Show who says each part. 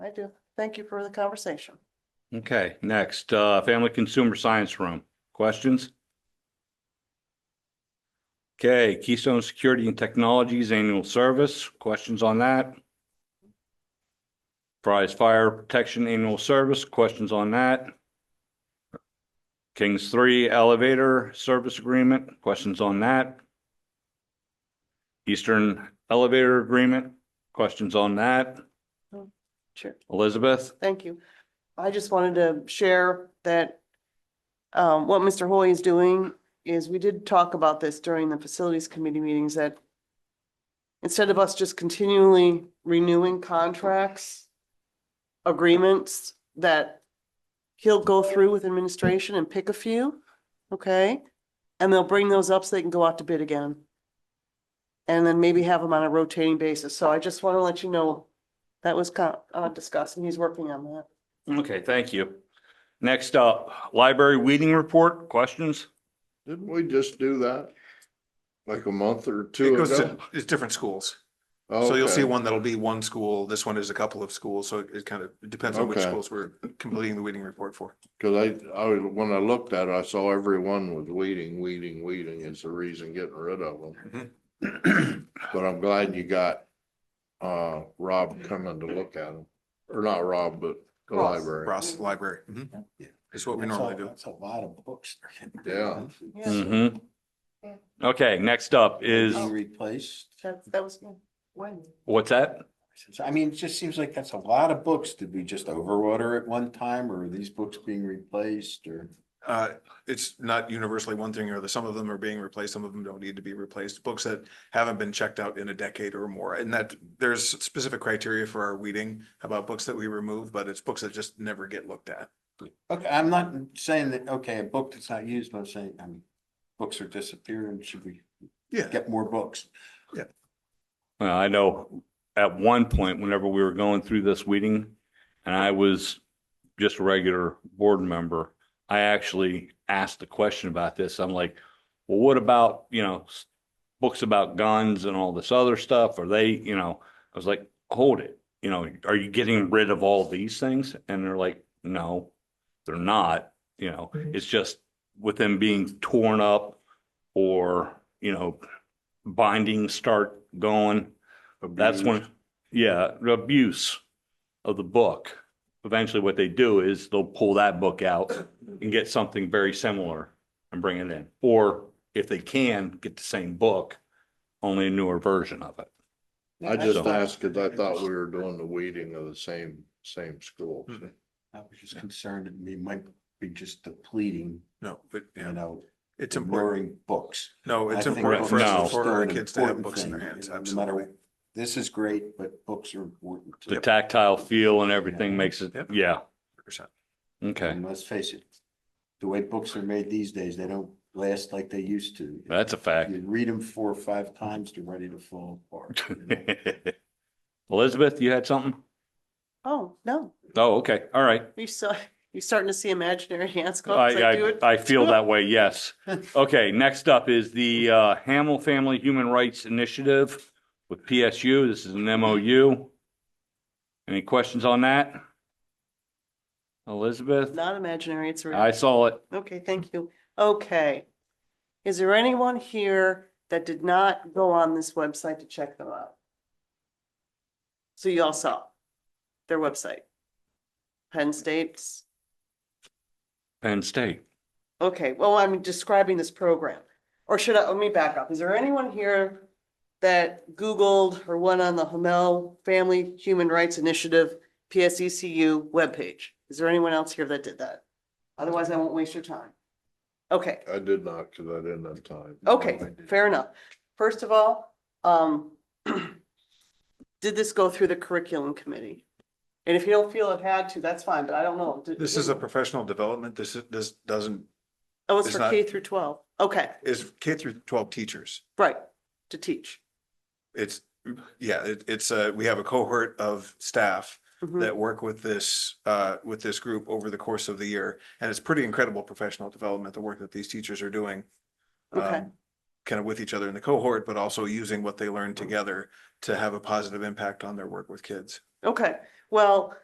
Speaker 1: I do. Thank you for the conversation.
Speaker 2: Okay, next, uh, Family Consumer Science Room. Questions? Okay, Keystone Security and Technologies Annual Service. Questions on that? Prize Fire Protection Annual Service. Questions on that? Kings Three Elevator Service Agreement. Questions on that? Eastern Elevator Agreement. Questions on that?
Speaker 1: Sure.
Speaker 2: Elizabeth?
Speaker 1: Thank you. I just wanted to share that um, what Mr. Hoy is doing is we did talk about this during the facilities committee meetings that instead of us just continually renewing contracts, agreements that he'll go through with administration and pick a few, okay? And they'll bring those up so they can go out to bid again. And then maybe have them on a rotating basis. So I just want to let you know that was co- uh, discussed and he's working on that.
Speaker 2: Okay, thank you. Next up, library weeding report, questions?
Speaker 3: Didn't we just do that? Like a month or
Speaker 4: It
Speaker 3: two
Speaker 4: goes to,
Speaker 3: ago?
Speaker 4: it's different schools. So you'll see
Speaker 3: Okay.
Speaker 4: one that'll be one school. This one is a couple of schools. So it kind of depends on which
Speaker 3: Okay.
Speaker 4: schools we're completing the weeding report for.
Speaker 3: Cause I, I, was- when I looked at it, I saw everyone was weeding, weeding, weeding is the reason getting rid of them.
Speaker 4: Mm-hmm.
Speaker 3: But I'm glad you got, uh, Rob coming to look at them, or not Rob, but the
Speaker 1: Ross.
Speaker 3: library.
Speaker 4: Ross Library. Mhm. Is what we
Speaker 5: That's
Speaker 4: normally
Speaker 5: a-
Speaker 4: do.
Speaker 5: That's a lot of books.
Speaker 3: Yeah.
Speaker 2: Mm-hmm. Okay, next up is,
Speaker 5: Being replaced.
Speaker 1: That, that was when?
Speaker 2: what's that?
Speaker 5: I mean, it just seems like that's a lot of books. Did we just overwater at one time or are these books being replaced or?
Speaker 4: Uh, it's not universally one thing or the, some of them are being replaced, some of them don't need to be replaced. Books that haven't been checked out in a decade or more. And that there's specific criteria for our weeding about books that we remove, but it's books that just never get looked at.
Speaker 5: Okay, I'm not saying that, okay, a book that's not used, but I'm saying, I mean, books are disappearing. Should we
Speaker 4: Yeah.
Speaker 5: get more books?
Speaker 2: Well, I know at one point, whenever we were going through this weeding, and I was just a regular board member, I actually asked the question about this. I'm like, well, what about, you know, s- books about guns and all this other stuff? Are they, you know, I was like, hold it, you know, are you getting rid of all these things? And they're like, no, they're not, you know, it's just with them being torn up or, you know, bindings start going. That's when, yeah, the abuse of the book. Eventually what they do is they'll pull that book out and get something very similar and bring it in. Or if they can, get the same book, only a newer version of it.
Speaker 3: I just
Speaker 2: So-
Speaker 3: asked, cause I thought we were doing the weeding of the same, same schools.
Speaker 4: Mhm.
Speaker 5: I was just concerned that we might be just depleting,
Speaker 4: No, but
Speaker 5: you
Speaker 4: yeah,
Speaker 5: know,
Speaker 4: it's important.
Speaker 5: ignoring books.
Speaker 4: No, it's
Speaker 5: uh, I think
Speaker 4: important for
Speaker 2: books are
Speaker 4: us, for
Speaker 5: still
Speaker 4: our
Speaker 5: an
Speaker 4: kids to have
Speaker 5: important
Speaker 4: books in their
Speaker 5: thing,
Speaker 4: hands,
Speaker 5: no matter
Speaker 4: absolutely.
Speaker 5: This is great, but books are important. too.
Speaker 2: The tactile feel and everything makes it,
Speaker 4: Yep.
Speaker 2: yeah,
Speaker 4: 100%.
Speaker 2: okay.
Speaker 5: And let's face it, the way books are made these days, they don't last like they used to.
Speaker 2: That's a fact.
Speaker 5: You read them four or five times, they're ready to fall apart. you know?
Speaker 2: Elizabeth, you had something?
Speaker 1: Oh, no,
Speaker 2: Oh, okay, all right.
Speaker 1: you saw, you're starting to see imaginary hands go up. as do
Speaker 2: I,
Speaker 1: it.
Speaker 2: I, I feel that way, yes. Okay, next up is the uh, Hamel Family Human Rights Initiative with PSU. This is an MOU. Any questions on that? Elizabeth?
Speaker 1: Not imaginary, it's real.
Speaker 2: I saw it.
Speaker 1: Okay, thank you. Okay. Is there anyone here that did not go on this website to check them out? So you all saw their website. Penn State's,
Speaker 2: Penn State.
Speaker 1: okay, well, I'm describing this program. Or should I, let me back up. Is there anyone here that Googled or went on the Hamel Family Human Rights Initiative, PSECU webpage? Is there anyone else here that did that? Otherwise, I won't waste your time. Okay.
Speaker 3: I did not, cause I didn't have time.
Speaker 1: Okay, fair enough. First of all, um, did this go through the curriculum committee? And if you don't feel it had to, that's fine, but I don't know. Did-
Speaker 4: This is a professional development. This is, this doesn't,
Speaker 1: Oh, it's
Speaker 4: it's
Speaker 1: for
Speaker 4: not-
Speaker 1: K through twelve. Okay,
Speaker 4: is K through twelve teachers.
Speaker 1: right, to teach.
Speaker 4: It's, yeah, it, it's a, we have a cohort of staff
Speaker 1: Mhm.
Speaker 4: that work with this, uh, with this group over the course of the year. And it's pretty incredible professional development, the work that these teachers are doing. um,
Speaker 1: Okay.
Speaker 4: Kind of with each other in the cohort, but also using what they learn together to have a positive impact on their work with kids.
Speaker 1: Okay, well,